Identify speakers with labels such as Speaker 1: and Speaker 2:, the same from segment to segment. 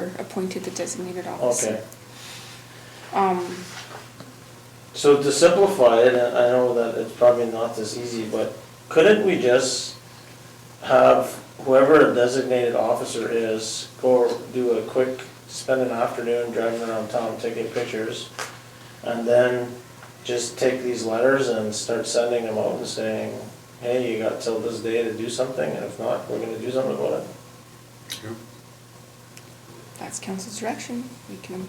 Speaker 1: appointed the designated officer. Um,
Speaker 2: Okay. So to simplify it, and I know that it's probably not this easy, but couldn't we just have whoever a designated officer is, go do a quick, spend an afternoon driving around town taking pictures, and then just take these letters and start sending them out and saying, hey, you got till this day to do something, and if not, we're gonna do something about it?
Speaker 1: That's council's direction. We can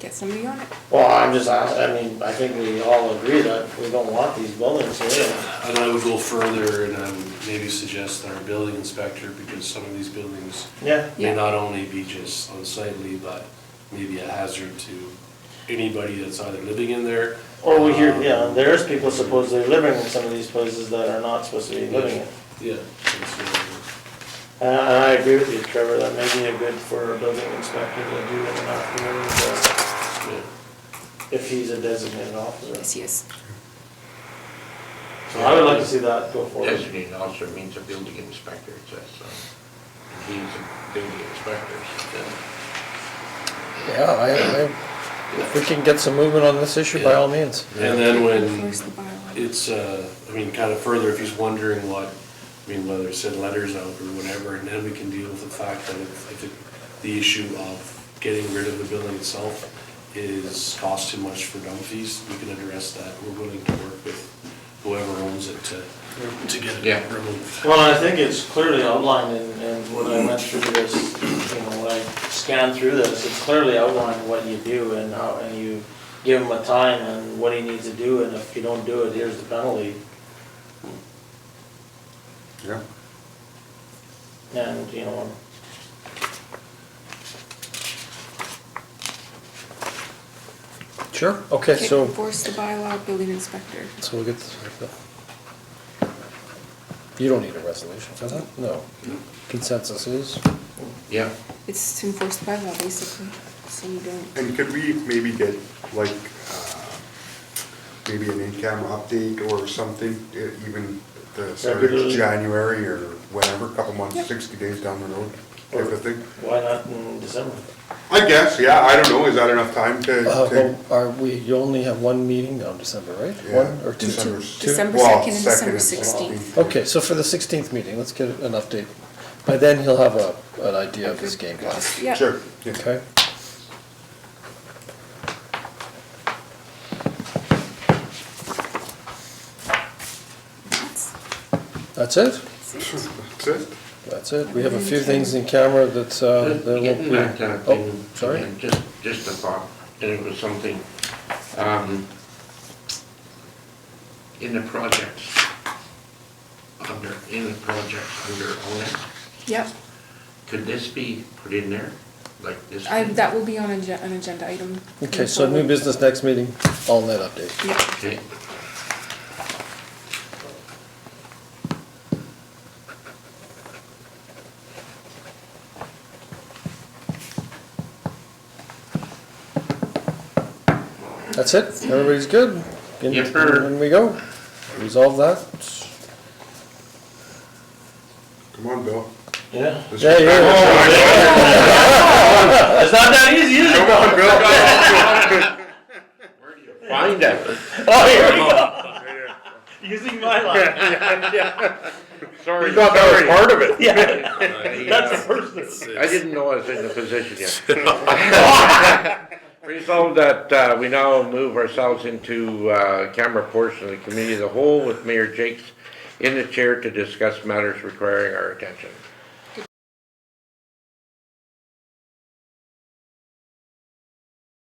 Speaker 1: get somebody on it.
Speaker 2: Well, I'm just, ask- I mean, I think we all agree that we don't want these buildings here.
Speaker 3: And I would go further and I would maybe suggest our building inspector, because some of these buildings
Speaker 2: Yeah,
Speaker 3: may
Speaker 1: Yeah.
Speaker 3: not only be just unsightly, but maybe a hazard to anybody that's either living in there.
Speaker 2: Or Oh, we hear,
Speaker 3: um,
Speaker 2: yeah, there is people supposedly living in some of these places that are not supposed to be living in.
Speaker 3: Yeah. that's what
Speaker 2: And I and I agree with you, Trevor, that may be a good for a building inspector to do in an afternoon, but
Speaker 3: I would-
Speaker 2: if he's a designated
Speaker 1: Yes,
Speaker 2: officer.
Speaker 1: yes.
Speaker 2: So I would like to see that go forward.
Speaker 4: Designated officer means a building inspector, it says, so. He's a building inspector, so.
Speaker 5: Yeah, I, I, if we can get some movement on this issue, by all means.
Speaker 3: Yeah. And then when
Speaker 1: Enforce the bylaw.
Speaker 3: it's, uh, I mean, kind of further, if he's wondering what, I mean, whether it said letters out or whatever, and then we can deal with the fact that if, if it- the issue of getting rid of the building itself is cost too much for dump fees, we can address that. We're willing to work with whoever owns it to, to get
Speaker 4: Yeah.
Speaker 3: it removed.
Speaker 2: Well, I think it's clearly outlined in, in what I went through this, you know, when I scanned through this, it's clearly outlined what you do and how, and you give him a time and what he needs to do, and if you don't do it, here's the penalty.
Speaker 6: Yeah.
Speaker 2: And, you know,
Speaker 5: Sure, okay,
Speaker 1: Okay,
Speaker 5: so,
Speaker 1: Enforce the bylaw, building inspector.
Speaker 5: so we'll get this. wrapped up. You don't need a resolution for that? No. Consensus is?
Speaker 4: Yeah,
Speaker 1: It's to enforce the bylaw, basically, so you don't.
Speaker 6: And could we maybe get like, uh, maybe an income update or something, e- even the start of
Speaker 2: Regularly.
Speaker 6: January or whenever, couple
Speaker 1: Yep.
Speaker 6: months, sixty days down the road, type of thing?
Speaker 2: why not in December?
Speaker 6: I guess, yeah, I don't know, is that enough time to?
Speaker 5: Uh,
Speaker 6: to-
Speaker 5: well, Are we, you only have one meeting on December, right?
Speaker 6: yeah,
Speaker 5: One or two?
Speaker 6: December-
Speaker 1: December
Speaker 6: well,
Speaker 1: 2nd and
Speaker 6: second
Speaker 1: December 16th.
Speaker 5: Okay, so for the sixteenth meeting, let's get an update. By then, he'll have a, an idea of his game plan,
Speaker 1: Yeah.
Speaker 6: Sure, yeah.
Speaker 5: okay?
Speaker 1: That's-
Speaker 5: That's it?
Speaker 1: that's it.
Speaker 6: That's it.
Speaker 5: That's it. We have a few things in camera that, uh, that won't
Speaker 4: getting
Speaker 5: be.
Speaker 4: back to,
Speaker 5: Oh,
Speaker 4: thing,
Speaker 5: sorry.
Speaker 4: and just, just a thought, and it was something, um, in the projects, under, in the projects under owner,
Speaker 1: Yep,
Speaker 4: could this be put in there, like this?
Speaker 1: I, that will be on an agen- an agenda item.
Speaker 5: Okay, so new business next meeting, all net update.
Speaker 1: Yeah,
Speaker 4: Okay,
Speaker 5: That's it, everybody's good? In-
Speaker 4: Yipper.
Speaker 5: In we go, resolve that.
Speaker 6: Come on, Bill.
Speaker 2: Yeah.
Speaker 6: This
Speaker 5: Yeah,
Speaker 6: is-
Speaker 5: yeah.
Speaker 2: It's not that easy, is it?
Speaker 6: Come on, Bill.
Speaker 4: find out.
Speaker 2: Oh, here we go. Using my line.
Speaker 4: Sorry.
Speaker 6: part of it.
Speaker 2: Yeah, that's the
Speaker 4: I
Speaker 2: first thing.
Speaker 4: didn't know I was in the position yet. Resolved that uh, we now move ourselves into uh, camera portion of the committee of the whole with Mayor Jakes in the chair to discuss matters requiring our attention.